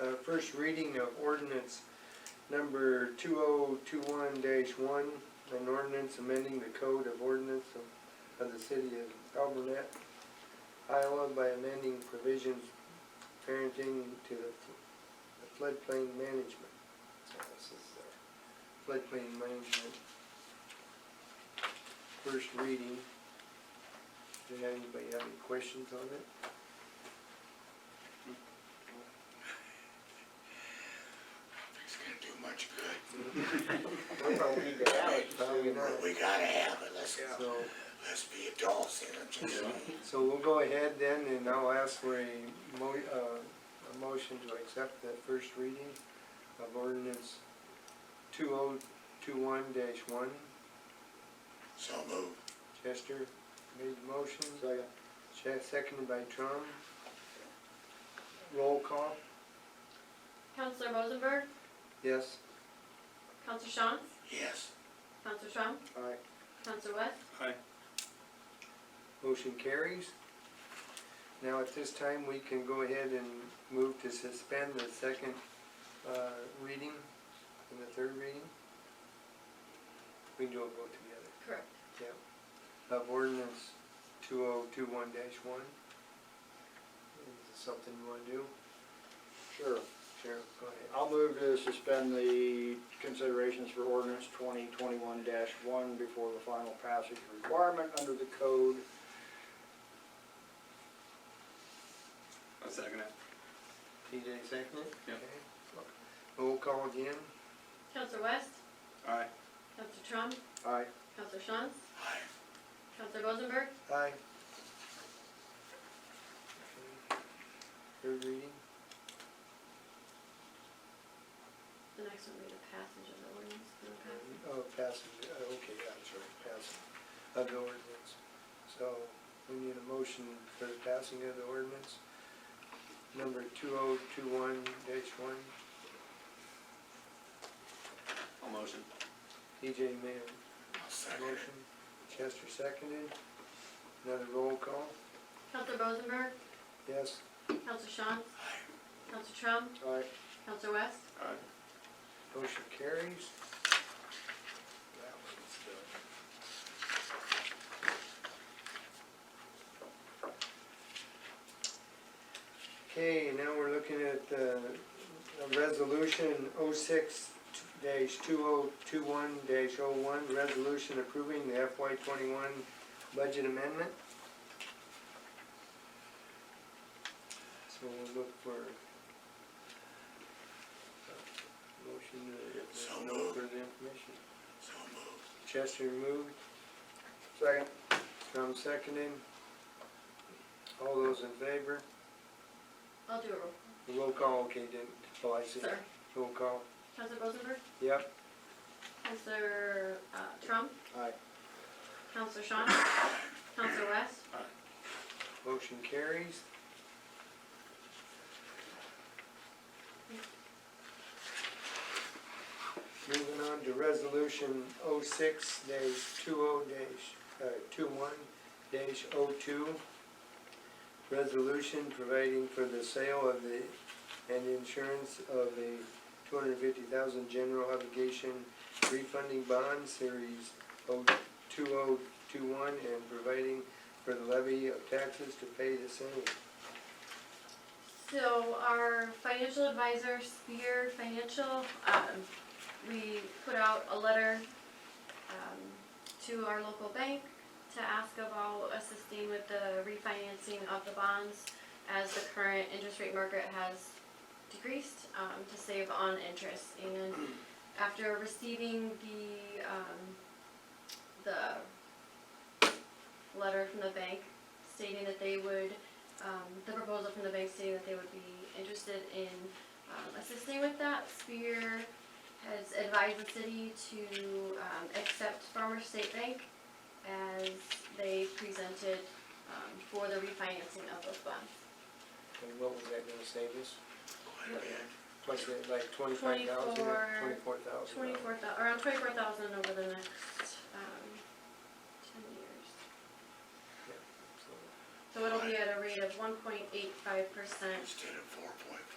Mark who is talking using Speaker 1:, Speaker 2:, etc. Speaker 1: Uh, first reading of ordinance number two oh two one one, an ordinance amending the code of ordinance of, of the city of Albernet, Iowa by amending provisions parenting to the fl- the floodplain management. So this is the floodplain management. First reading. Does anybody have any questions on it?
Speaker 2: It's gonna do much good.
Speaker 1: Probably not.
Speaker 2: But we gotta have it, let's,
Speaker 1: So,
Speaker 2: let's be adults in it, just saying.
Speaker 1: so we'll go ahead then and I'll ask for a mo- uh, a motion to accept that first reading of ordinance two oh two one dash one.
Speaker 2: so move.
Speaker 1: Chester made the motion. Second. seconded by Trump. Roll call,
Speaker 3: Counselor Rosenberg,
Speaker 1: yes?
Speaker 3: Counselor Shantz,
Speaker 2: Yes,
Speaker 3: Counselor Trump,
Speaker 1: Aye.
Speaker 3: Counselor West,
Speaker 1: Motion carries. Now at this time, we can go ahead and move to suspend the second uh, reading and the third reading. We can do them both together,
Speaker 3: correct.
Speaker 1: yeah. Of ordinance two oh two one dash one. Is this something you wanna do?
Speaker 4: Sure.
Speaker 1: Sheriff, go ahead.
Speaker 4: I'll move to suspend the considerations for ordinance twenty twenty-one one before the final passage requirement under the code.
Speaker 5: I'll second it.
Speaker 1: TJ seconded?
Speaker 5: Yeah.
Speaker 1: Okay. Roll call again,
Speaker 3: Counselor West,
Speaker 5: Aye.
Speaker 3: Counselor Trump,
Speaker 4: Aye.
Speaker 3: Counselor Shantz,
Speaker 2: aye.
Speaker 3: Counselor Rosenberg,
Speaker 1: aye. Third reading?
Speaker 3: the next one will be the passage of the ordinance. okay?
Speaker 1: Oh, passage, uh, okay, yeah, that's right, passage of the ordinance. So we need a motion for the passing of the ordinance, number two oh two one dash one.
Speaker 5: I'll motion.
Speaker 1: TJ made
Speaker 2: I'll
Speaker 1: a
Speaker 2: second it.
Speaker 1: motion, Chester seconded. Another roll call,
Speaker 3: Counselor Rosenberg,
Speaker 1: yes?
Speaker 3: Counselor Shantz,
Speaker 2: Aye,
Speaker 3: Counselor Trump,
Speaker 1: Aye.
Speaker 3: Counselor West,
Speaker 5: Aye.
Speaker 1: Motion carries. That one's done. Okay, now we're looking at the the resolution oh six dash two oh two one dash oh one, resolution approving the FY twenty-one budget amendment. So we'll look for uh, motion to, if
Speaker 2: So
Speaker 1: there's no
Speaker 2: moved.
Speaker 1: further information.
Speaker 2: so move.
Speaker 1: Chester moved,
Speaker 4: Second.
Speaker 1: Trump seconded. All those in favor?
Speaker 3: I'll do a roll,
Speaker 1: Roll call, okay, didn't, oh, I see.
Speaker 3: sorry.
Speaker 1: Roll call,
Speaker 3: Counselor Rosenberg,
Speaker 1: yep,
Speaker 3: Counselor, uh, Trump,
Speaker 4: Aye.
Speaker 3: Counselor Shantz, Counselor West,
Speaker 1: motion carries. Moving on to resolution oh six dash two oh dash, uh, two one dash oh two. Resolution providing for the sale of the, and insurance of the two hundred and fifty thousand general obligation refunding bond series oh two oh two one and providing for the levy of taxes to pay the same.
Speaker 3: So our financial advisor, Spear Financial, um, we put out a letter, um, to our local bank to ask about assisting with the refinancing of the bonds as the current interest rate market has decreased, um, to save on interest. And after receiving the, um, the letter from the bank stating that they would um, the proposal from the bank stating that they would be interested in um, assisting with that. Spear has advised the city to um, accept Farmer State Bank as they presented um, for the refinancing of those bonds.
Speaker 1: And what was that gonna save us?
Speaker 2: Quite a bit.
Speaker 1: What's it, like twenty-five thousand or twenty-four thousand?
Speaker 3: Twenty-four thou, around twenty-four thousand over the next um, ten years. So it'll be at a rate of one point eight five percent
Speaker 2: Instead of four point